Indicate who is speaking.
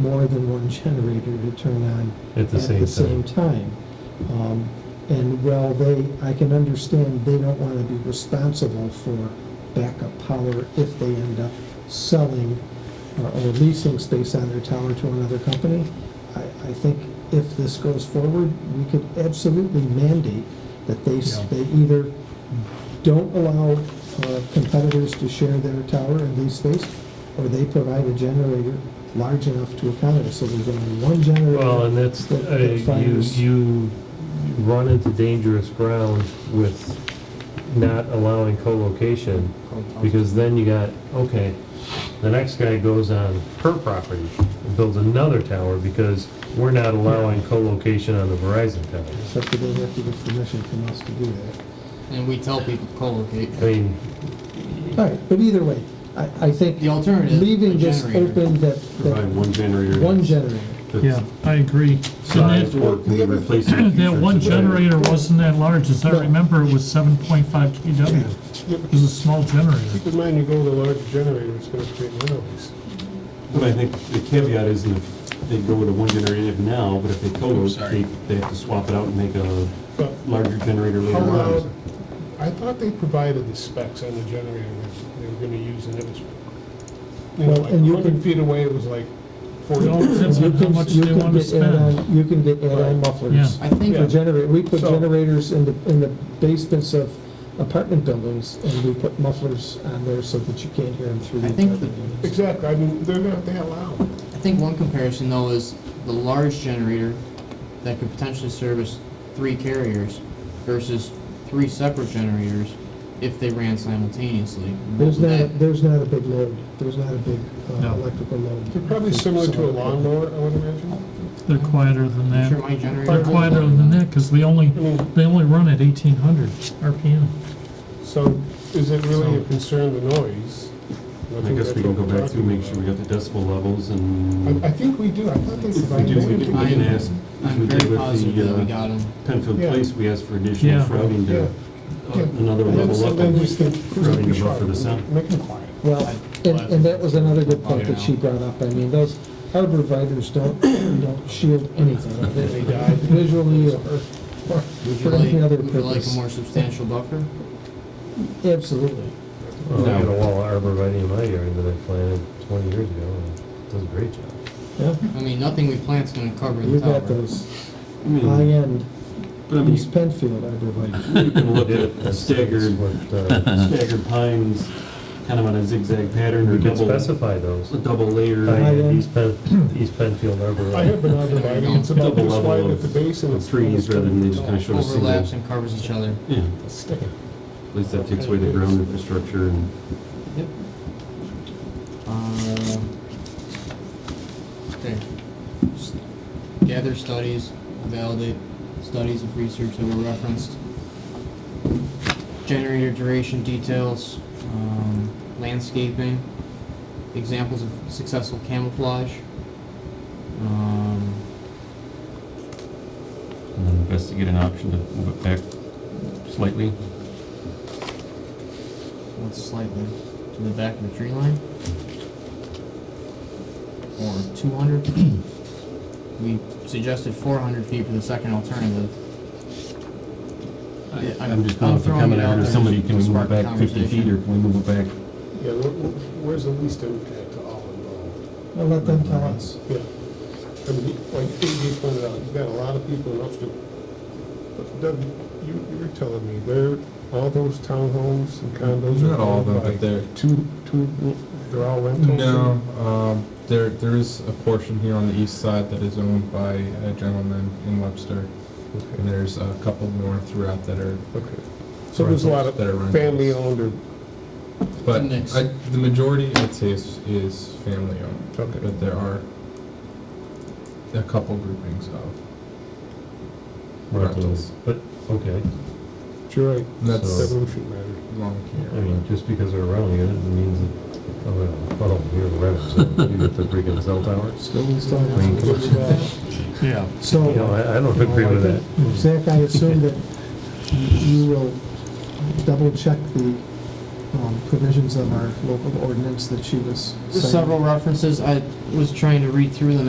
Speaker 1: more than one generator to turn on
Speaker 2: At the same time.
Speaker 1: time. Um, And while they, I can understand they don't want to be responsible for backup power if they end up selling or or leasing space on their tower to another company. I, I think if this goes forward, we could absolutely mandate that they, s-
Speaker 2: Yeah.
Speaker 1: they either don't allow uh, competitors to share their tower and lease space, or they provide a generator large enough to accommodate, so there's only one generator.
Speaker 2: Well, and that's,
Speaker 1: that-
Speaker 2: uh,
Speaker 1: that
Speaker 2: you,
Speaker 1: fires.
Speaker 2: you run into dangerous ground with not allowing co-location, because then you got, okay, the next guy goes on her property and builds another tower, because we're not allowing co-location on the Verizon towers.
Speaker 1: Except that they have to get permission from us to do that.
Speaker 3: And we tell people to co-locate.
Speaker 2: I mean,
Speaker 1: All right, but either way, I, I think
Speaker 3: The alternative,
Speaker 1: leaving
Speaker 3: a
Speaker 1: this
Speaker 3: generator.
Speaker 1: open that,
Speaker 4: Provide
Speaker 1: that
Speaker 4: one generator.
Speaker 1: one generator.
Speaker 4: that's
Speaker 5: Yeah, I agree.
Speaker 4: Sized
Speaker 5: And
Speaker 4: or can be replaced. in the
Speaker 5: that, that
Speaker 4: future
Speaker 5: one
Speaker 4: to-
Speaker 5: generator wasn't that large, as I remember, it was seven point five KW. It was a small generator.
Speaker 6: Keep in mind, you go with a large generator, it's gonna create noise.
Speaker 4: But I think the caveat is if they go with a one generator now, but if they co-locate, they have to swap it out and make a
Speaker 6: But
Speaker 4: larger generator later
Speaker 6: how loud,
Speaker 4: on.
Speaker 6: I thought they provided the specs on the generator that they were gonna use, and it was, you know,
Speaker 1: Well,
Speaker 6: like
Speaker 1: and you can-
Speaker 6: 100 feet away, it was like
Speaker 5: It all
Speaker 6: 40.
Speaker 5: depends on
Speaker 1: You
Speaker 5: how
Speaker 1: can-
Speaker 5: much
Speaker 1: you
Speaker 5: they
Speaker 1: can
Speaker 5: want to
Speaker 1: get add-on-
Speaker 5: spend.
Speaker 1: You can get add-on mufflers.
Speaker 5: Yeah.
Speaker 3: I think,
Speaker 1: For
Speaker 6: Yeah.
Speaker 1: generator, we put
Speaker 6: So-
Speaker 1: generators in the, in the basements of apartment buildings, and we put mufflers on there so that you can't hear them through the
Speaker 3: I think
Speaker 1: apartment
Speaker 3: the-
Speaker 1: buildings.
Speaker 6: Exactly, I mean, they're not that loud.
Speaker 3: I think one comparison though is the large generator that could potentially service three carriers versus three separate generators if they ran simultaneously. What
Speaker 1: There's
Speaker 3: would
Speaker 1: not, a-
Speaker 3: that-
Speaker 1: there's not a big load, there's not a big uh,
Speaker 5: No.
Speaker 1: electrical load.
Speaker 6: They're probably
Speaker 1: for
Speaker 6: similar to a
Speaker 1: solar.
Speaker 6: lawnmower, I would imagine.
Speaker 5: They're quieter than
Speaker 3: I'm sure
Speaker 5: that.
Speaker 3: my generator.
Speaker 5: They're quieter than that, because they only,
Speaker 6: I mean,
Speaker 5: they only run at eighteen hundred RPM.
Speaker 6: so is it really a concern, the noise?
Speaker 4: And I
Speaker 6: think
Speaker 4: guess
Speaker 6: that's
Speaker 4: we can
Speaker 6: what
Speaker 4: go
Speaker 6: we're
Speaker 4: back to,
Speaker 6: talking
Speaker 4: make sure we got the decibel levels and
Speaker 6: about. I, I think we do, I thought they
Speaker 4: if we do,
Speaker 6: provided.
Speaker 4: we can, we can ask, as we
Speaker 3: I'm
Speaker 4: did
Speaker 3: very
Speaker 4: with
Speaker 3: positive that we
Speaker 4: the uh,
Speaker 3: got them.
Speaker 4: Penfield
Speaker 6: Yeah.
Speaker 4: Place, we asked for additional
Speaker 5: Yeah.
Speaker 4: shrouding
Speaker 6: Yeah.
Speaker 4: to uh,
Speaker 6: Yeah.
Speaker 4: another
Speaker 6: And then
Speaker 4: level up.
Speaker 6: sometimes we
Speaker 4: and-
Speaker 6: think, who's gonna be
Speaker 4: Rubbing the buffer the
Speaker 6: sharp?
Speaker 4: sound.
Speaker 6: Make them quiet.
Speaker 1: Well, and, and that was another good point that she brought up. I mean, those arborvitae's don't, don't shield anything.
Speaker 6: They died.
Speaker 1: Visually or, or
Speaker 3: Would you
Speaker 1: for
Speaker 3: like,
Speaker 1: any other
Speaker 3: would you like a
Speaker 1: purpose.
Speaker 3: more substantial buffer?
Speaker 1: Absolutely.
Speaker 2: well, I got
Speaker 4: No.
Speaker 2: a wall of arborvitae in my yard that I planted twenty years ago, and it does a great job.
Speaker 1: Yeah,
Speaker 3: I mean, nothing we plant's gonna cover
Speaker 1: you
Speaker 3: the tower.
Speaker 1: got those
Speaker 4: I mean,
Speaker 1: high-end
Speaker 4: but I mean,
Speaker 1: East Penfield arborvitae.
Speaker 4: you can look at
Speaker 2: That's-
Speaker 4: staggered
Speaker 2: that's what, uh,
Speaker 4: staggered pines, kind of on a zigzag pattern or
Speaker 2: We can
Speaker 4: double,
Speaker 2: specify those.
Speaker 4: a double layer.
Speaker 1: Right.
Speaker 2: High-end East Penn, East Penfield Arbor.
Speaker 6: I have been out there, I mean, it's about
Speaker 4: Double
Speaker 6: this
Speaker 4: level
Speaker 6: wide
Speaker 4: of-
Speaker 6: at the base and
Speaker 4: of
Speaker 6: it's.
Speaker 4: trees rather than they just kinda show- Sort of single-
Speaker 3: Overlaps and covers each other.
Speaker 4: Yeah,
Speaker 6: Stick it.
Speaker 4: at least that takes away the ground infrastructure and
Speaker 3: Yep. Uh, Okay. Just Gather studies, validate studies of research that were referenced. Generator duration details, um, landscaping, examples of successful camouflage. Um,
Speaker 4: and then investigate an option to move it back slightly.
Speaker 3: What's slightly to the back of the tree line? Or two hundred? We suggested four hundred feet for the second alternative. Yeah, I'm-
Speaker 4: I'm just
Speaker 3: I'm
Speaker 4: going for
Speaker 3: throwing
Speaker 4: coming
Speaker 3: it out
Speaker 4: out or
Speaker 3: there
Speaker 4: somebody
Speaker 3: to
Speaker 4: can we move
Speaker 3: spark
Speaker 4: it back fifty feet
Speaker 3: conversation.
Speaker 4: or can we move it back?
Speaker 6: Yeah, where- where- where's the least impact to all involved?
Speaker 1: I'll let them tell us.
Speaker 6: Yeah. I mean, like you pointed out, you've got a lot of people in Upstate. But Doug, you, you were telling me, there, all those townhomes and condos are.
Speaker 7: Not all of them,
Speaker 6: owned by-
Speaker 7: but there, two,
Speaker 6: Two, they're all rentals?
Speaker 7: no, um, there, there is a portion here on the east side that is owned by a gentleman in Webster. And
Speaker 6: Okay,
Speaker 7: there's a couple more throughout that are,
Speaker 6: Okay. so there's a lot of
Speaker 7: Rentals that are rentals.
Speaker 6: family owned or,
Speaker 7: but
Speaker 3: Mix.
Speaker 7: I, the majority, I'd say, is, is family owned.
Speaker 6: okay,
Speaker 7: But there are a couple groupings of
Speaker 2: Rentals, but, okay,
Speaker 6: you're right,
Speaker 7: And that's-
Speaker 6: that really shouldn't matter.
Speaker 7: long
Speaker 2: I
Speaker 7: here.
Speaker 2: mean, just because they're renting it, it means that, oh, well, oh, you're renting, so you get the freaking cell tower.
Speaker 1: Still installing
Speaker 2: I mean, come
Speaker 1: switches back.
Speaker 5: Yeah.
Speaker 2: You know,
Speaker 1: So,
Speaker 2: I, I don't agree with that.
Speaker 1: Zach, I assume that you will double-check the um, provisions of our local ordinance that she was citing.
Speaker 3: Several references, I was trying to read through them